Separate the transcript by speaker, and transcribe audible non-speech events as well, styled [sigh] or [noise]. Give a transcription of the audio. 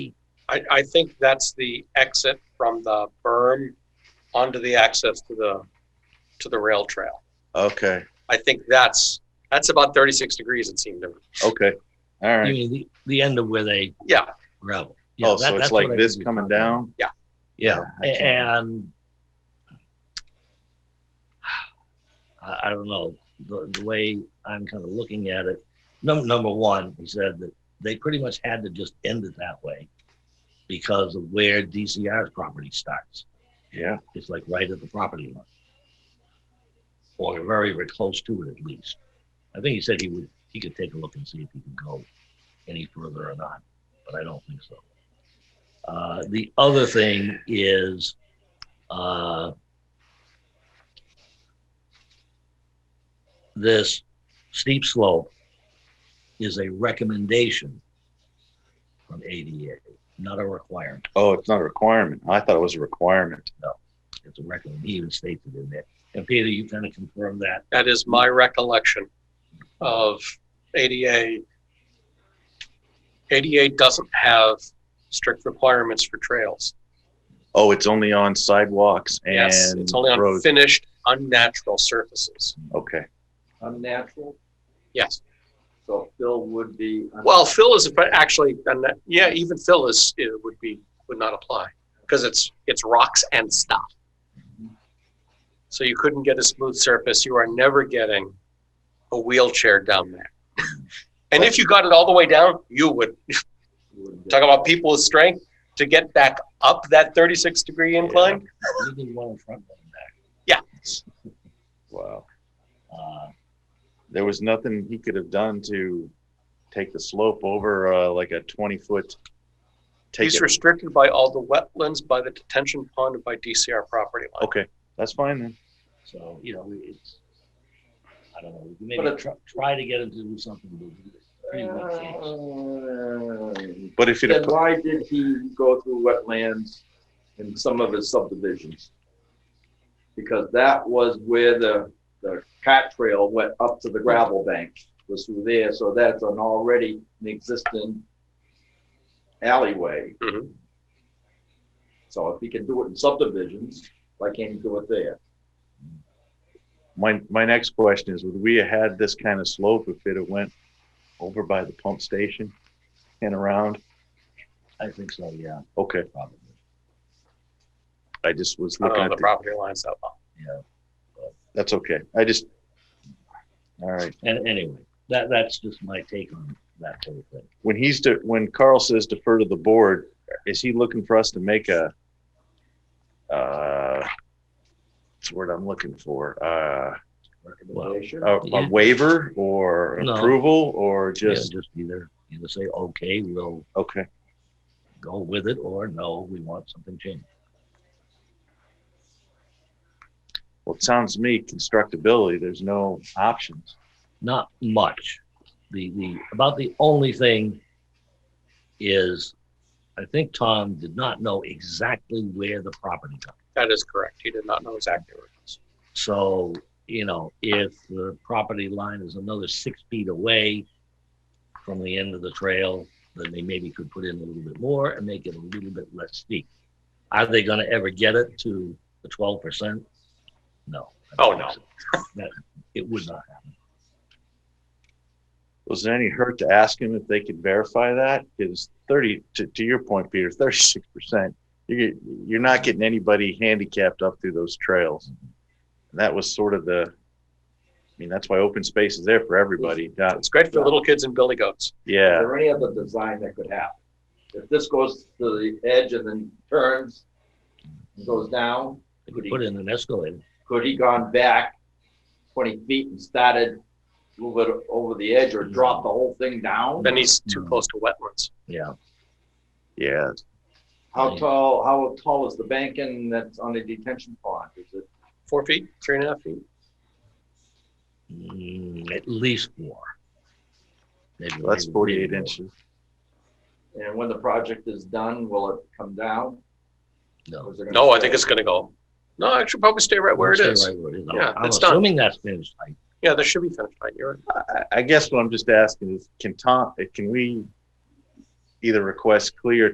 Speaker 1: I, I think that's the exit from the berm onto the access to the, to the rail trail.
Speaker 2: Okay,
Speaker 1: I think that's, that's about thirty-six degrees it seemed to me.
Speaker 2: okay, all
Speaker 3: You
Speaker 2: right.
Speaker 3: mean the, the end of where they
Speaker 1: Yeah,
Speaker 3: gravel. Yeah,
Speaker 2: Oh,
Speaker 3: that-
Speaker 2: so it's
Speaker 3: that's what
Speaker 2: like
Speaker 3: I
Speaker 2: this
Speaker 3: think
Speaker 2: coming
Speaker 3: you're talking about.
Speaker 2: down?
Speaker 3: Yeah,
Speaker 2: Yeah, I
Speaker 3: a- and I, I don't know, the, the way I'm kind of looking at it, num- number one, he said that they pretty much had to just end it that way because of where DCR's property starts.
Speaker 2: Yeah,
Speaker 3: It's like right at the property line. Or very, very close to it at least. I think he said he would, he could take a look and see if he can go any further or not, but I don't think so. Uh, the other thing is, uh, this steep slope is a recommendation from ADA, not a requirement.
Speaker 2: oh, it's not a requirement. I thought it was a requirement.
Speaker 3: It's a record. He even states it in there. And Peter, you kind of confirmed that.
Speaker 1: that is my recollection of ADA. ADA doesn't have strict requirements for trails.
Speaker 2: Oh, it's only on sidewalks
Speaker 1: Yes,
Speaker 2: and
Speaker 1: it's only on
Speaker 2: roads.
Speaker 1: finished, unnatural surfaces.
Speaker 2: Okay,
Speaker 4: unnatural,
Speaker 1: Yes.
Speaker 4: so Phil would be.
Speaker 1: Well, Phil is but actually, and that- yeah, even Phil is it would be would not apply because it's it's rocks and stuff. So you couldn't get a smooth surface. You are never getting a wheelchair down there. [laughs] And if you got it all the way down, you would talk about people with strength to get back up that 36 degree incline.
Speaker 3: You did one in front, one in back.
Speaker 2: wow.
Speaker 3: Uh,
Speaker 2: There was nothing he could have done to take the slope over, uh, like a twenty foot. Take
Speaker 1: He's
Speaker 2: it.
Speaker 1: restricted by all the wetlands, by the detention pond, and by DCR property line.
Speaker 2: Okay, that's fine then.
Speaker 3: So, you know, it's, I don't know,
Speaker 4: But
Speaker 3: maybe
Speaker 4: it- Uh.
Speaker 3: try, try to get him to do something. but it's pretty much it's-
Speaker 4: Then
Speaker 2: But if you'd have, put-
Speaker 4: why did he go through wetlands in some of his subdivisions? Because that was where the, the cat trail went up to the gravel bank, was through there, so that's an already an existing alleyway.
Speaker 1: Mhm.
Speaker 4: So if he can do it in subdivisions, why can't he do it there?
Speaker 2: my, my next question is, would we have had this kind of slope if it had went over by the pump station and around?
Speaker 3: I think so, yeah,
Speaker 2: Okay,
Speaker 3: probably,
Speaker 2: I just was
Speaker 1: I don't
Speaker 2: looking
Speaker 1: know
Speaker 2: at
Speaker 1: the
Speaker 2: the,
Speaker 1: property lines that well.
Speaker 3: yeah.
Speaker 2: that's okay. I just, all right.
Speaker 3: And anyway, that, that's just my take on that whole thing.
Speaker 2: When he's, de- when Carl says defer to the board, is he looking for us to make a, uh, what's the word I'm looking for? Uh,
Speaker 4: Recommendation?
Speaker 2: a-
Speaker 3: Yeah.
Speaker 2: a waiver or
Speaker 3: No.
Speaker 2: approval or
Speaker 3: Yeah,
Speaker 2: just,
Speaker 3: Just either, either say, okay, we'll
Speaker 2: okay,
Speaker 3: go with it, or no, we want something changed.
Speaker 2: well, it sounds to me constructability, there's no options.
Speaker 3: not much. The the about the only thing is, I think Tom did not know exactly where the property comes.
Speaker 1: That is correct. He did not know exactly where it was.
Speaker 3: So you know, if the property line is another six feet away from the end of the trail, then they maybe could put in a little bit more and make it a little bit less steep. Are they going to ever get it to the twelve percent? No.
Speaker 1: Oh, no.
Speaker 3: That, it would not happen.
Speaker 2: Was there any hurt to ask him if they could verify that? Because thirty, to, to your point, Peter, thirty-six percent, you, you're not getting anybody handicapped up through those trails. And that was sort of the, I mean, that's why open space is there for everybody. Not-
Speaker 1: It's great for little kids and billy goats.
Speaker 4: Is
Speaker 2: yeah,
Speaker 4: there any other design that could happen? If this goes to the edge and then turns, and goes down,
Speaker 3: They could put in an escalator.
Speaker 4: could he gone back twenty feet and started a little bit over the edge or dropped the whole thing down?
Speaker 1: Then he's too
Speaker 3: Mm.
Speaker 1: close to wetlands.
Speaker 3: Yeah.
Speaker 2: yeah.
Speaker 4: How tall, how tall is the bank in that's on the detention pond? Is it
Speaker 1: Four feet, three and a half feet.
Speaker 3: Mm, at least four. Maybe
Speaker 2: Well, That's
Speaker 3: maybe
Speaker 2: forty-eight
Speaker 3: more.
Speaker 2: inches.
Speaker 4: And when the project is done, will it come down? Or
Speaker 3: No.
Speaker 4: is it gonna
Speaker 1: No, I
Speaker 4: stay?
Speaker 1: think it's gonna go. No, it should probably stay right where it
Speaker 3: Stay
Speaker 1: is.
Speaker 3: right where it is.
Speaker 1: Yeah,
Speaker 3: I'm
Speaker 1: it's done.
Speaker 3: assuming that's finished height.
Speaker 1: Yeah, there should be finished line. You're right.
Speaker 2: I, I guess what I'm just asking is, can Tom, can we either request clear